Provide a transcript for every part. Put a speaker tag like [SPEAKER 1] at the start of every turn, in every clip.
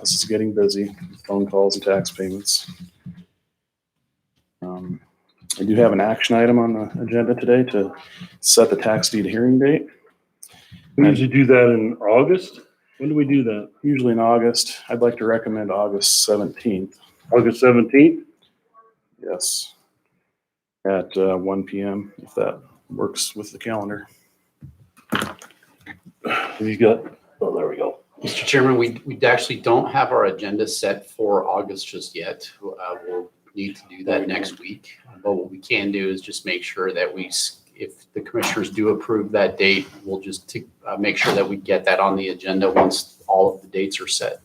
[SPEAKER 1] This is getting busy, phone calls and tax payments. Um, I do have an action item on the agenda today to set the tax deed hearing date,
[SPEAKER 2] We usually do that in August. When do we do that?
[SPEAKER 1] usually in August. I'd like to recommend August seventeenth,
[SPEAKER 2] August seventeenth?
[SPEAKER 1] yes. At uh, one PM, if that works with the calendar.
[SPEAKER 2] We got, oh, there we go.
[SPEAKER 3] Mr. Chairman, we, we actually don't have our agenda set for August just yet. Uh, we'll need to do that next week. But what we can do is just make sure that we, s- if the commissioners do approve that date, we'll just t- uh, make sure that we get that on the agenda once all of the dates are set.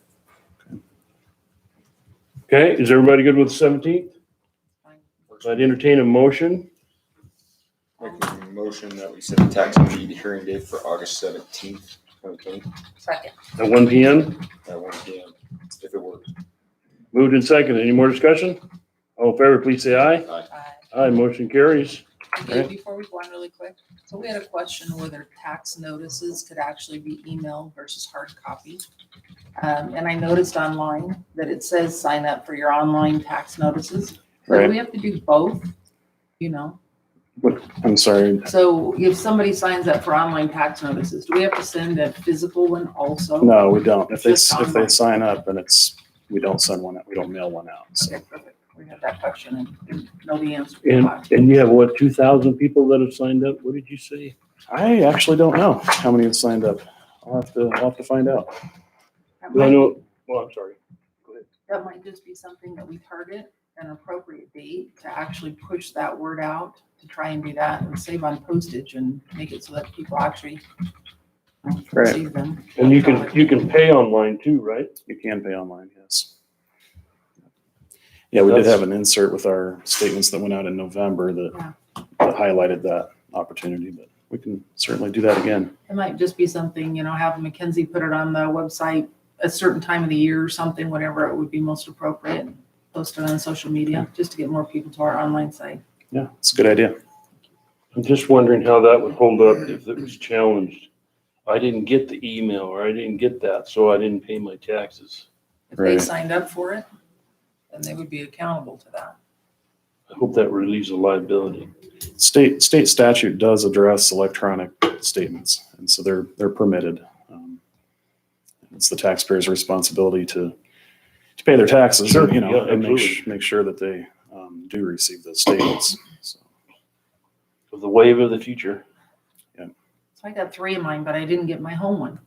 [SPEAKER 2] Okay, is everybody good with the seventeenth? I'd entertain a motion.
[SPEAKER 4] Make a motion that we set the tax deed hearing date for August seventeenth, twenty twenty,
[SPEAKER 5] Second.
[SPEAKER 2] At one P M,
[SPEAKER 4] at one P M, if it works.
[SPEAKER 2] moved and second. Any more discussion? All in favor, please say aye.
[SPEAKER 5] Aye.
[SPEAKER 2] Aye, motion carries.
[SPEAKER 5] Dave, Before we go on really quick, so we had a question whether tax notices could actually be email versus hard copy. Um, and I noticed online that it says sign up for your online tax notices. So do
[SPEAKER 1] Right.
[SPEAKER 5] we have to do both, you know?
[SPEAKER 1] I'm sorry,
[SPEAKER 5] So if somebody signs up for online tax notices, do we have to send a physical one also?
[SPEAKER 1] no, we don't. If they,
[SPEAKER 5] Just
[SPEAKER 1] if they
[SPEAKER 5] online.
[SPEAKER 1] sign up, then it's, we don't send one out, we don't mail one out, so.
[SPEAKER 5] Okay, perfect. We had that question and nobody answered. the
[SPEAKER 2] And,
[SPEAKER 5] question.
[SPEAKER 2] and you have what, two thousand people that have signed up? What did you say?
[SPEAKER 1] I actually don't know how many have signed up. I'll have to, I'll have to find out.
[SPEAKER 5] That
[SPEAKER 2] I
[SPEAKER 5] might-
[SPEAKER 2] know, well, I'm sorry.
[SPEAKER 5] that might just be something that we target an appropriate date to actually push that word out, to try and do that and save on postage and make it so that people actually um,
[SPEAKER 1] Right.
[SPEAKER 5] receive them.
[SPEAKER 2] And you can, you can pay online too, right?
[SPEAKER 1] You can pay online, yes. Yeah, we did
[SPEAKER 2] That's-
[SPEAKER 1] have an insert with our statements that went out in November that that highlighted that opportunity, but we can certainly do that again.
[SPEAKER 5] It might just be something, you know, have Mackenzie put it on the website a certain time of the year or something, whatever it would be most appropriate. Post it on social media, just to get more people to our online site.
[SPEAKER 1] Yeah, it's a good idea.
[SPEAKER 2] I'm just wondering how that would hold up if it was challenged. I didn't get the email or I didn't get that, so I didn't pay my taxes.
[SPEAKER 5] If they
[SPEAKER 1] Right.
[SPEAKER 5] signed up for it, then they would be accountable to that.
[SPEAKER 2] I hope that relieves the liability.
[SPEAKER 1] State, state statute does address electronic statements, and so they're, they're permitted. Um, It's the taxpayer's responsibility to, to pay their taxes,
[SPEAKER 2] Sure,
[SPEAKER 1] you know,
[SPEAKER 2] yeah,
[SPEAKER 1] and make, sh-
[SPEAKER 2] absolutely.
[SPEAKER 1] make sure that they um, do receive those statements. So,
[SPEAKER 2] Of the wave of the future.
[SPEAKER 5] So I got three of mine, but I didn't get my home one,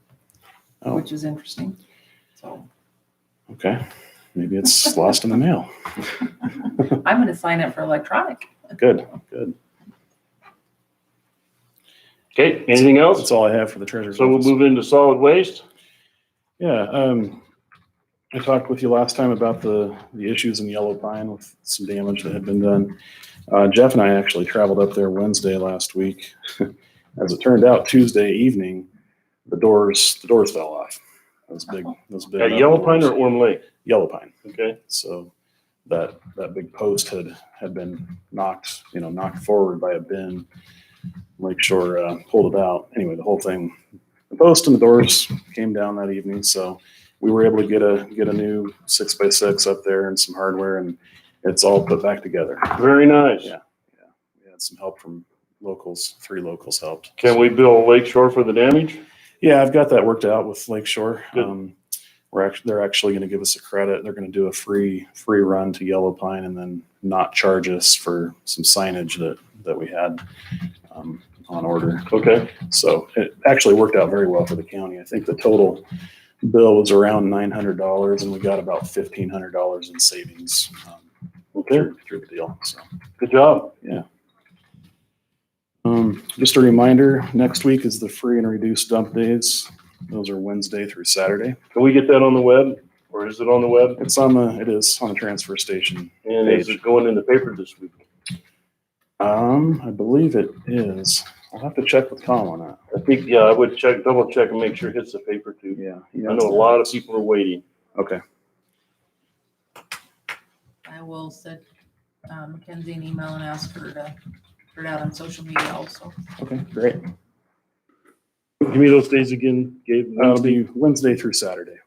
[SPEAKER 1] Oh.
[SPEAKER 5] which is interesting. So
[SPEAKER 1] Okay, maybe it's lost in the mail.
[SPEAKER 5] I'm going to sign up for electronic.
[SPEAKER 1] Good, good.
[SPEAKER 2] Okay, anything
[SPEAKER 1] That's
[SPEAKER 2] else?
[SPEAKER 1] all I have for the treasurer's
[SPEAKER 2] So we'll
[SPEAKER 1] office.
[SPEAKER 2] move into solid waste.
[SPEAKER 1] Yeah, um, I talked with you last time about the, the issues in Yellow Pine with some damage that had been done. Uh, Jeff and I actually traveled up there Wednesday last week. As it turned out, Tuesday evening, the doors, the doors fell off. Those big, those big. uh,
[SPEAKER 2] At Yellow Pine or
[SPEAKER 1] doors.
[SPEAKER 2] Orm Lake?
[SPEAKER 1] Yellow Pine.
[SPEAKER 2] Okay,
[SPEAKER 1] So that, that big post had, had been knocked, you know, knocked forward by a bin. Lakeshore uh, pulled it out. Anyway, the whole thing, the post and the doors came down that evening. So we were able to get a, get a new six by six up there and some hardware and it's all put back together.
[SPEAKER 2] very nice.
[SPEAKER 1] Yeah. We had some help from locals, three locals helped.
[SPEAKER 2] Can we bill Lake Shore for the damage?
[SPEAKER 1] Yeah, I've got that worked out with Lakeshore.
[SPEAKER 2] Good.
[SPEAKER 1] Um, we're actually, they're actually going to give us a credit. They're going to do a free, free run to Yellow Pine and then not charge us for some signage that, that we had, um, on order.
[SPEAKER 2] Okay,
[SPEAKER 1] So it actually worked out very well for the county. I think the total bill was around nine hundred dollars and we got about fifteen hundred dollars in savings, um,
[SPEAKER 2] okay,
[SPEAKER 1] through, through the deal, so.
[SPEAKER 2] good job.
[SPEAKER 1] Um, just a reminder, next week is the free and reduced dump days. Those are Wednesday through Saturday.
[SPEAKER 2] Can we get that on the web or is it on the web?
[SPEAKER 1] It's on the, it is on the transfer station.
[SPEAKER 2] And is it going in the paper this week?
[SPEAKER 1] Um, I believe it is. I'll have to check with Tom on that.
[SPEAKER 2] I think, yeah, I would check, double check and make sure it hits the paper too.
[SPEAKER 1] Yeah.
[SPEAKER 2] I know a lot of people are waiting.
[SPEAKER 1] Okay,
[SPEAKER 5] I will send uh, Mackenzie an email and ask her to put it out on social media also.
[SPEAKER 1] okay, great.
[SPEAKER 2] Give me those days again, Gabe.
[SPEAKER 1] That'll be Wednesday through Saturday.